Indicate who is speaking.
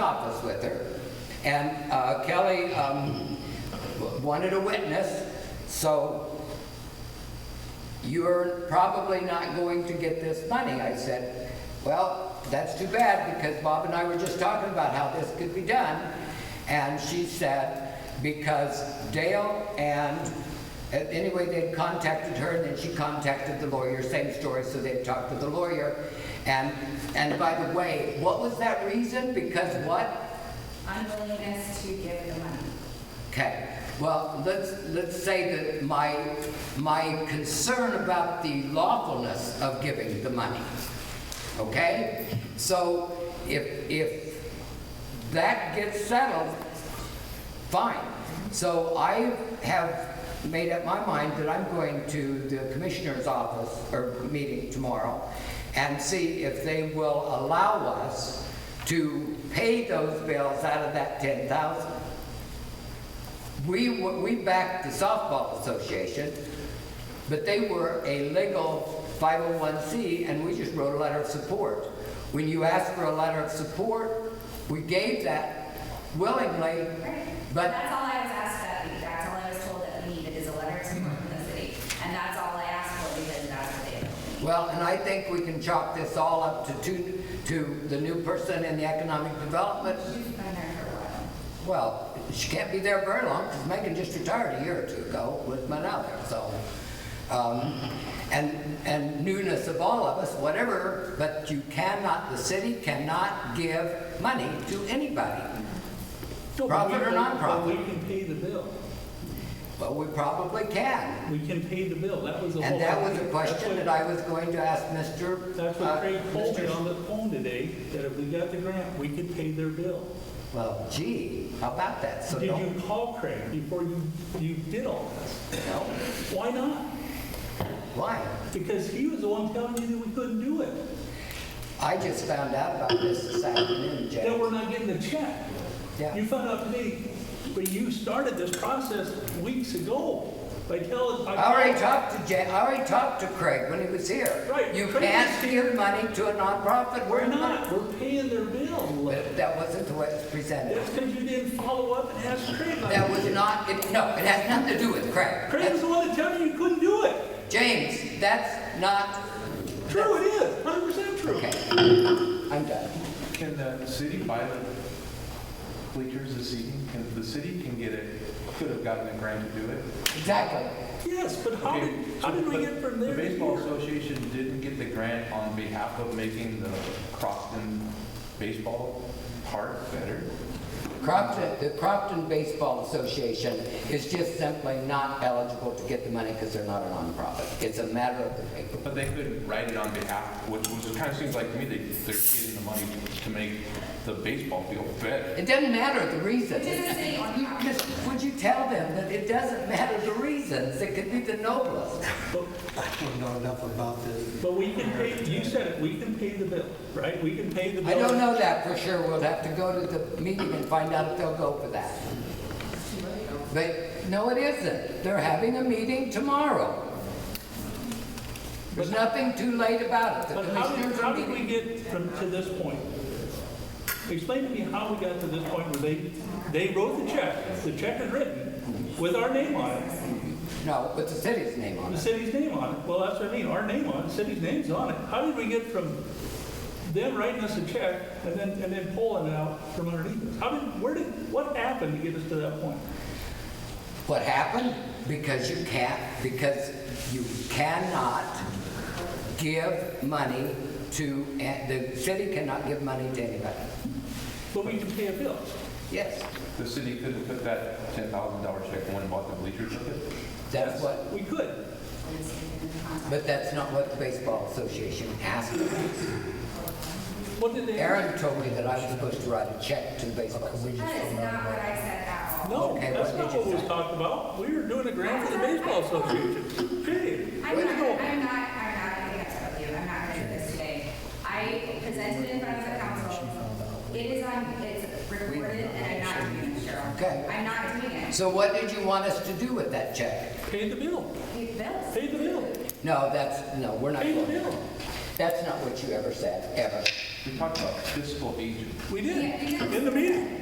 Speaker 1: office with her. And uh, Kelly um, w- wanted a witness, so you're probably not going to get this money. I said, well, that's too bad because Bob and I were just talking about how this could be done. And she said, because Dale and, uh, anyway, they'd contacted her and then she contacted the lawyer, same story, so they'd talked to the lawyer. And, and by the way, what was that reason? Because what?
Speaker 2: unwillingness to give the money.
Speaker 1: Okay, well, let's, let's say that my, my concern about the lawfulness of giving the money, okay? So if, if that gets settled, fine. So I have made up my mind that I'm going to the commissioner's office or meeting tomorrow and see if they will allow us to pay those bills out of that ten thousand. We, w- we backed the softball association, but they were a legal 501c, and we just wrote a letter of support. When you ask for a letter of support, we gave that willingly, but,
Speaker 2: That's all I was asked that week, that's all I was told that we needed is a letter of support
Speaker 3: Mm-hmm.
Speaker 2: from the city. And that's all I asked for because that's what they told me.
Speaker 1: well, and I think we can chalk this all up to two, to the new person in the economic development.
Speaker 2: She's been there for a while.
Speaker 1: Well, she can't be there very long, because Megan just retired a year or two ago with Manala, so. um, And, and newness of all of us, whatever, but you cannot, the city cannot give money to anybody.
Speaker 3: No, but
Speaker 1: Profit
Speaker 3: we-
Speaker 1: or
Speaker 3: but-
Speaker 1: nonprofit?
Speaker 3: but We can pay the bill.
Speaker 1: But we probably can.
Speaker 3: We can pay the bill. That was the whole.
Speaker 1: And that was a
Speaker 3: idea.
Speaker 1: question that I was going to ask Mr.
Speaker 3: That's
Speaker 1: uh,
Speaker 3: what Craig told me
Speaker 1: Mr.
Speaker 3: on the phone today, that if we got the grant, we could pay their bill.
Speaker 1: Well, gee, how about that? So
Speaker 3: Did
Speaker 1: don't,
Speaker 3: you call Craig before you, you did all this?
Speaker 1: no,
Speaker 3: Why not?
Speaker 1: why?
Speaker 3: Because he was the one telling you that we couldn't do it,
Speaker 1: I just found out about this this afternoon, Jay.
Speaker 3: that we're not getting the check.
Speaker 1: Yeah.
Speaker 3: You found out today, but you started this process weeks ago by telling. by
Speaker 1: I already
Speaker 3: calling-
Speaker 1: talked to Jay, I already talked to Craig when he was here.
Speaker 3: Right,
Speaker 1: You
Speaker 3: Craig
Speaker 1: can't
Speaker 3: was here.
Speaker 1: give money to a nonprofit.
Speaker 3: We're not, we're paying their bill.
Speaker 1: But That wasn't the way it was presented.
Speaker 3: That's because you didn't follow up and ask Craig. on
Speaker 1: That was
Speaker 3: it.
Speaker 1: not, it- no, it has nothing to do with Craig.
Speaker 3: Craig was the one that told you you couldn't do it.
Speaker 1: That's- James, that's not,
Speaker 3: True, it is, hundred percent true.
Speaker 1: okay, I'm done.
Speaker 4: Can the city buy the bleachers this evening? Can, the city can get it, could have gotten a grant to do it.
Speaker 1: Exactly.
Speaker 3: Yes, but how
Speaker 4: Okay,
Speaker 3: did, how did we
Speaker 4: but
Speaker 3: get from there
Speaker 4: The
Speaker 3: to
Speaker 4: Baseball
Speaker 3: here?
Speaker 4: Association didn't get the grant on behalf of making the Crofton Baseball Park better.
Speaker 1: Crofton, the Crofton Baseball Association is just simply not eligible to get the money because they're not a nonprofit. It's a matter of the paper.
Speaker 4: But they could write it on behalf, which, which kind of seems like to me they, they're getting the money to make the baseball field better.
Speaker 1: It doesn't matter the reason.
Speaker 2: It doesn't say on
Speaker 1: You just- Would you tell them that it doesn't matter the reasons? It could be the noblest.
Speaker 3: But-
Speaker 5: I don't know enough about this.
Speaker 3: But we can pay, you said it, we can pay the bill, right? We can pay the bill.
Speaker 1: I don't know that for sure. We'll have to go to the meeting and find out if they'll go for that. But, no, it isn't. They're having a meeting tomorrow. There's nothing too late about it. The
Speaker 3: But how did,
Speaker 1: commissioners
Speaker 3: how
Speaker 1: are
Speaker 3: did we
Speaker 1: meeting.
Speaker 3: get from, to this point? Explain to me how we got to this point where they, they wrote the check, the check is written with our name on it,
Speaker 1: No, with the city's name on
Speaker 3: the
Speaker 1: it.
Speaker 3: city's name on it. Well, that's what I mean, our name on it, city's name's on it. How did we get from them writing us a check and then, and then pulling it out from underneath us? How did, where did, what happened to get us to that point?
Speaker 1: What happened? Because you can't, because you cannot give money to, and the city cannot give money to anybody.
Speaker 3: But we can pay a bill.
Speaker 1: Yes,
Speaker 4: The city could have put that ten thousand dollar check and went and bought the bleachers with it.
Speaker 1: that's what,
Speaker 3: We could.
Speaker 1: but that's not what the Baseball Association asked us.
Speaker 3: What did they?
Speaker 1: Aaron told me that I was supposed to write a check to the baseball.
Speaker 2: That is not what I said at all.
Speaker 3: No,
Speaker 1: Okay,
Speaker 3: that's
Speaker 1: what did
Speaker 3: not
Speaker 1: you
Speaker 3: what we was
Speaker 1: say?
Speaker 3: talking about. We were doing a grant for the baseball association. Period.
Speaker 2: I'm
Speaker 3: Way
Speaker 2: not,
Speaker 3: to go.
Speaker 2: I'm not, I'm not gonna get upset with you, I'm not gonna do this today. I presented it in front of the council, it is on, it's recorded, and I'm not doing it, Cheryl.
Speaker 1: Okay.
Speaker 2: I'm not doing it.
Speaker 1: So what did you want us to do with that check?
Speaker 3: Pay the bill.
Speaker 2: Pay the bills.
Speaker 3: Pay the bill.
Speaker 1: No, that's, no, we're not
Speaker 3: Pay the
Speaker 1: going.
Speaker 3: bill.
Speaker 1: That's not what you ever said, ever.
Speaker 6: We talked about fiscal agent.
Speaker 3: We
Speaker 4: Yeah,
Speaker 3: did,
Speaker 4: because-
Speaker 3: in the meeting.